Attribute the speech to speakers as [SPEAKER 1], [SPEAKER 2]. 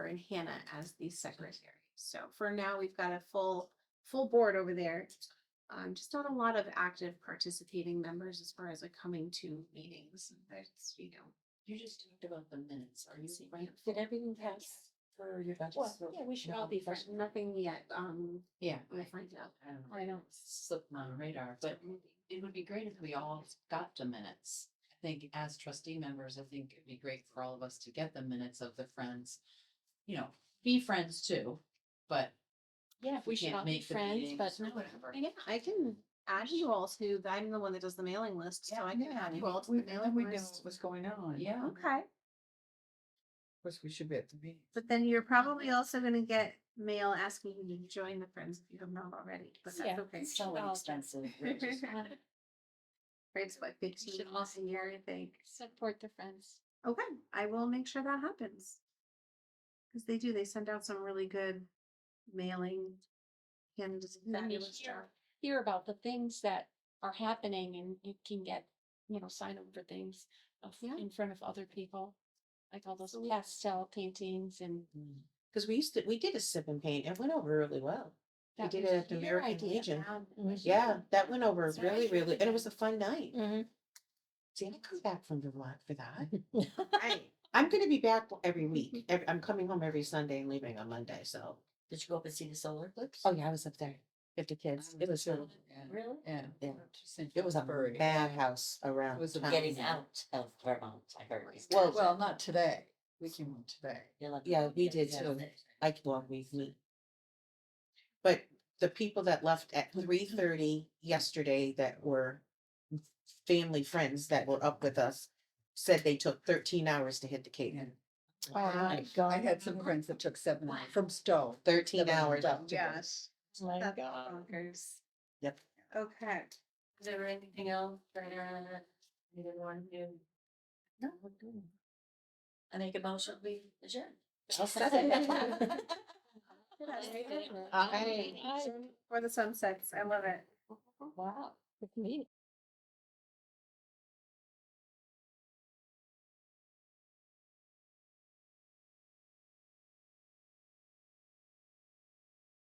[SPEAKER 1] and Hannah as the secretary. So for now, we've got a full, full board over there. Um, just not a lot of active participating members as far as like coming to meetings. That's, you know,
[SPEAKER 2] You just talked about the minutes. Are you seeing?
[SPEAKER 1] Right.
[SPEAKER 2] Did everything pass for your budget?
[SPEAKER 1] Well,
[SPEAKER 2] So-
[SPEAKER 1] yeah, we should all be fresh. Nothing yet. Um,
[SPEAKER 2] Yeah.
[SPEAKER 1] I'm gonna find out.
[SPEAKER 2] I don't know. I don't slip my radar, but it would be great if we all got the minutes. I think as trustee members, I think it'd be great for all of us to get the minutes of the friends. You know, be friends too, but
[SPEAKER 3] Yeah,
[SPEAKER 2] if we can't make the meetings or whatever.
[SPEAKER 1] Yeah, I can add you all to, I'm the one that does the mailing list, so I can add you all to the mailing list.
[SPEAKER 3] what's going on. Of
[SPEAKER 2] Yeah.
[SPEAKER 1] Okay,
[SPEAKER 3] course, we should be at the meeting.
[SPEAKER 1] but then you're probably also gonna get mail asking you to join the friends if you have not already, but that's
[SPEAKER 3] Yeah,
[SPEAKER 1] okay.
[SPEAKER 2] It's so
[SPEAKER 3] Well,
[SPEAKER 2] expensive. We're just-
[SPEAKER 1] Friends, what, fifteen dollars a year, I think.
[SPEAKER 3] Support the friends.
[SPEAKER 1] Okay, I will make sure that happens. Cause they do, they send out some really good mailing. And just
[SPEAKER 3] then you
[SPEAKER 1] fabulous
[SPEAKER 3] hear-
[SPEAKER 1] job.
[SPEAKER 3] Hear about the things that are happening and you can get, you know, sign up for things of-
[SPEAKER 1] Yeah.
[SPEAKER 3] in front of other people. Like all those
[SPEAKER 1] Absolutely.
[SPEAKER 3] pastel paintings and.
[SPEAKER 4] Because we used to, we did a sip and paint. It went over really well. We
[SPEAKER 3] that
[SPEAKER 4] did
[SPEAKER 3] was
[SPEAKER 4] it at the
[SPEAKER 3] your
[SPEAKER 4] American
[SPEAKER 3] idea.
[SPEAKER 4] Legion.
[SPEAKER 3] Um,
[SPEAKER 4] Yeah, that went over
[SPEAKER 3] That's right.
[SPEAKER 4] really, really, and it was a fun night. See, I come back from Vermont for that.
[SPEAKER 1] Right.
[SPEAKER 4] I'm going to be back every week. Every, I'm coming home every Sunday and leaving on Monday. So.
[SPEAKER 2] Did you go up and see the solar eclipse?
[SPEAKER 4] Oh, yeah, I was up there. Fifty kids.
[SPEAKER 2] Um,
[SPEAKER 4] It was
[SPEAKER 2] so-
[SPEAKER 4] really,
[SPEAKER 2] yeah.
[SPEAKER 3] Really?
[SPEAKER 4] yeah.
[SPEAKER 2] Interesting.
[SPEAKER 4] It was a
[SPEAKER 2] Bird.
[SPEAKER 4] bad house around.
[SPEAKER 2] was a
[SPEAKER 4] town.
[SPEAKER 2] Getting out of Vermont, I heard.
[SPEAKER 4] Well-
[SPEAKER 2] Well,
[SPEAKER 3] not today. We came home today.
[SPEAKER 4] yeah, we did too. I well, we meet. But the people that left at three thirty yesterday that were family friends that were up with us said they took thirteen hours to hit the Cape.
[SPEAKER 2] Oh
[SPEAKER 4] Oh,
[SPEAKER 3] Oh my
[SPEAKER 5] I had some friends that took seven hours from Stowe.
[SPEAKER 4] Thirteen
[SPEAKER 5] Seven
[SPEAKER 4] hours.
[SPEAKER 5] hours.
[SPEAKER 1] Yes.
[SPEAKER 3] Oh My
[SPEAKER 1] That's
[SPEAKER 3] God.
[SPEAKER 1] bonkers.
[SPEAKER 4] Yep.
[SPEAKER 1] Okay.
[SPEAKER 2] Is there anything else for either one who? No. I make a motion, we adjourn.
[SPEAKER 4] I'll second
[SPEAKER 1] that.
[SPEAKER 3] Aye.
[SPEAKER 1] Or the sunsets, I love it.
[SPEAKER 3] Wow, with me.